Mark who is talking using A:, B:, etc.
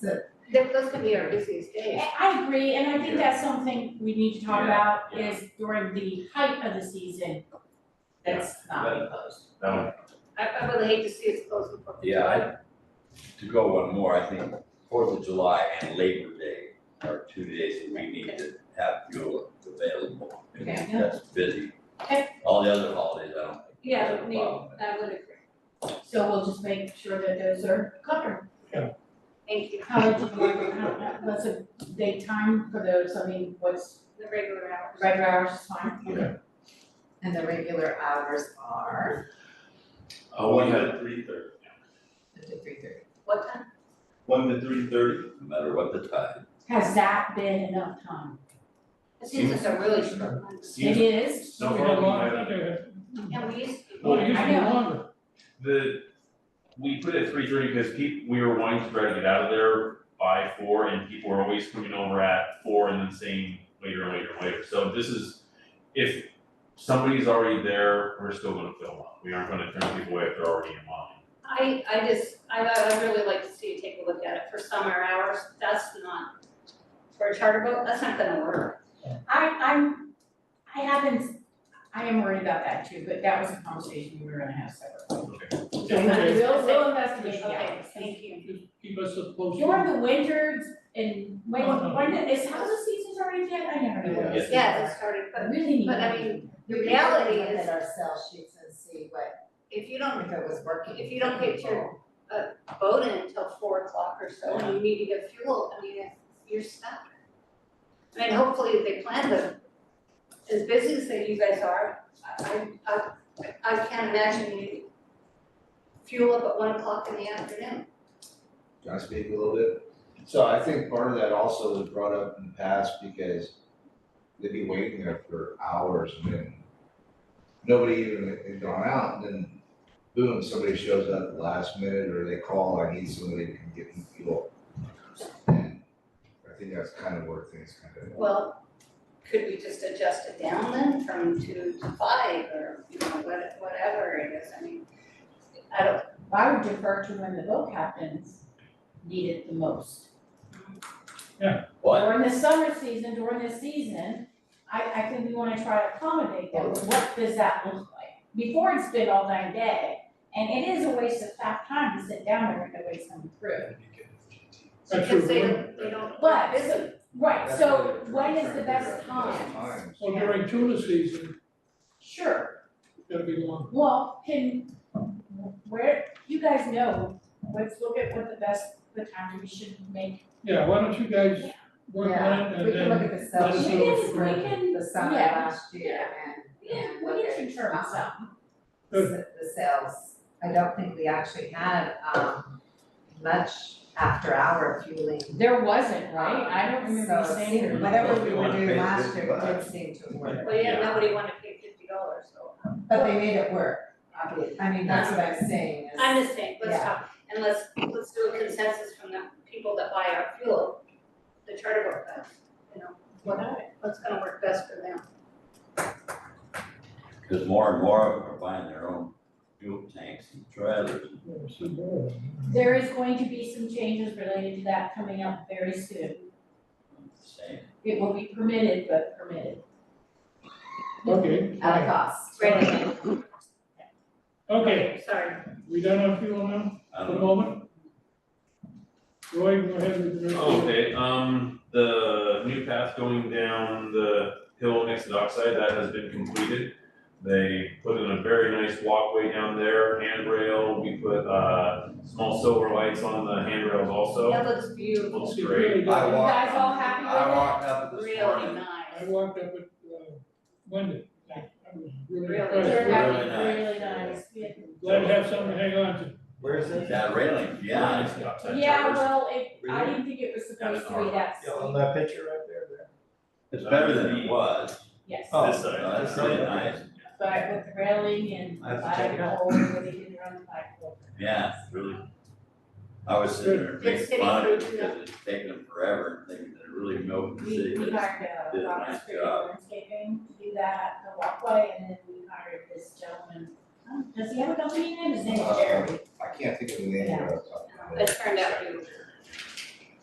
A: So,
B: That- Those could be our busiest days.
C: I I agree, and I think that's something we need to talk
D: Yeah,
C: about
D: yeah.
C: is during the height of the season, that's not
D: Yeah.
C: proposed.
D: No,
B: I, I would hate to see us close the Fourth of
D: yeah,
B: July.
D: I, to go one more, I think Fourth of July and Labor Day are two days that we need to have fuel available. and
B: Okay.
D: That's busy.
C: Okay.
D: All the other holidays, I don't think.
B: Yeah,
D: there's a
B: me,
D: problem.
B: I would agree.
C: So we'll just make sure that those are covered.
B: Thank you.
C: How much, of it- how- what's a day time for those, I mean, what's,
B: The regular hours.
C: regular hours is fine?
D: Yeah.
A: and the regular hours are
E: Uh, one to three thirty,
A: the three thirty.
B: What time?
E: one to three thirty,
D: No matter what the time.
C: Has that been enough time?
B: The seasons are really short.
C: It
E: seems,
C: is,
E: so
F: We had a lot
E: far, we
F: of
E: have,
F: other-
B: And we used to.
E: Well,
F: Well, it used to be
C: I know.
F: longer.
E: the, we put it at three thirty because people, we were wanting to try to get out of there by four, and people were always coming over at four and then saying later, later, later, so this is, if somebody's already there, we're still gonna fill them up, we aren't gonna turn people away if they're already in line.
B: I, I just, I, I'd really like to see you take a look at it for summer hours. That's not, for a charter boat, that's not gonna work.
C: I, I'm, I haven't, I am worried about that too, but that was a conversation we were gonna have separately.
F: Yeah, okay.
C: We'll, we'll investigate, yeah.
B: Okay, thank you.
F: Just Keep us posted.
C: During the winters and when,
F: Uh-huh.
C: when, is how the season's already yet? I never know.
D: Yeah.
B: Yeah, it started,
A: I
B: but
C: Really need.
B: but I
C: to-
B: mean,
A: The
B: reality
A: Look
B: is-
A: at our cell sheets and see what,
B: if you don't
A: if it was working.
B: If you don't get your- uh, boat in until four o'clock or so, and you need to get fuel, I mean, you're stuck. I mean, hopefully they plan them, as busy as that you guys are, I, I, I, I can't imagine you fuel up at one o'clock in the afternoon.
G: Can I speak a little bit? So I think part of that also was brought up in the past because they'd be waiting there for hours and then nobody even had gone out and then boom, somebody shows up at the last minute or they call, I need somebody to come get me fuel. And I think that's kind of where things kind of,
B: Well, could we just adjust it down then from two to five or, you know, what- whatever it is, I mean, I don't,
C: I would defer to when the boat captains need it the most.
D: What?
C: During the summer season, during this season, I, I think we wanna try to accommodate that. What does that look like? Before it's been all night day, and it is a waste of fat time to sit down there and nobody's coming through.
B: because
F: That's true.
B: they don't, they don't,
C: But-
B: they're busy.
C: Right,
G: That's
C: so
G: what they're
C: when is
G: trying
C: the
G: to
C: best
G: figure out the best
C: time?
G: times.
F: Well, during tuna season,
C: Sure,
F: gotta be long.
C: Well, can, where, you guys know, let's look at what the best, the time we should make.
F: Yeah, why don't you guys work on it
A: Yeah, we
F: and then.
A: can look at the cell
F: let
C: We
F: us
A: sheets
F: know what's
C: can, we
F: going
C: can,
A: the summer
C: yeah.
A: last year and,
C: yeah,
A: and
C: we
A: look
C: can
A: at,
C: determine
A: uh,
C: some.
F: Good.
A: the the sales. I don't think we actually had um much after hour fueling.
C: There wasn't,
A: So it seemed-
C: it.
A: whatever we
D: You
A: were
D: wanna
A: doing
D: pay
A: last year, it did
D: $50.
A: seem to work,
B: Well, yeah, nobody wanted to pay fifty dollars, so.
A: but they made it work, obviously, I mean, that's what I'm saying is.
B: I'm just saying, let's
A: Yeah.
B: talk, and let's, let's do a consensus from the people that buy our fuel, the charter boat guys, you know, what, what's gonna work best for them.
D: Cause more and more of them are buying their own fuel tanks and trailers.
C: There is going to be some changes related to that coming up very soon.
D: Same.
C: It will be permitted, but permitted
F: Okay,
A: At a cost.
B: Right.
F: okay,
B: Sorry,
F: we done our fuel now
D: I
F: for
D: don't
F: the
D: know.
F: moment? Roy, go ahead with the.
E: Oh, Okay, um, the new path going down the hill next to Dockside, that has been completed. They put in a very nice walkway down there, handrail, we put, uh, small silver lights on the handrails also.
B: that looks beautiful,
F: It's
E: Looks great.
F: really good.
G: I
C: You
G: walked-
C: guys all happy with
G: I
C: it?
G: walked up this
B: really
G: morning.
F: I
B: nice.
F: walked up with, uh, Wendy, I I was really
B: Really?
F: impressed.
C: Turned
D: Really
C: out
D: nice.
C: really nice. Yeah.
F: Glad to have something to hang on to.
D: Where is it? That railing, yeah.
E: Nice Dockside
C: Yeah,
E: Towers.
C: well, it, I
E: Really?
C: didn't think it was supposed to
E: Yeah,
C: be that
G: Yeah,
C: sweet.
G: that picture right there, there.
D: It's better than it was.
C: yes.
G: Oh,
E: This side.
D: No, that's really nice.
C: But with the railing and
D: I have to check
C: bike
D: it out.
C: hole, where they didn't run the bike hole.
D: Yeah, it's really. I was sitting there
B: Good
D: making
B: city
D: fun of it
B: food, yeah.
D: because it's taking them forever and thinking they're really milking the
C: We,
D: city.
C: we
D: but it's-
C: hired
D: did
C: a
D: a
C: Rock
D: nice
C: Street
D: job.
C: landscaping to do that, the walkway, and then we hired this gentleman. Um, Does he have a company name? His name is
G: Uh,
C: Jerry.
G: I can't think of the name of it. off the top of my head.
B: It turned out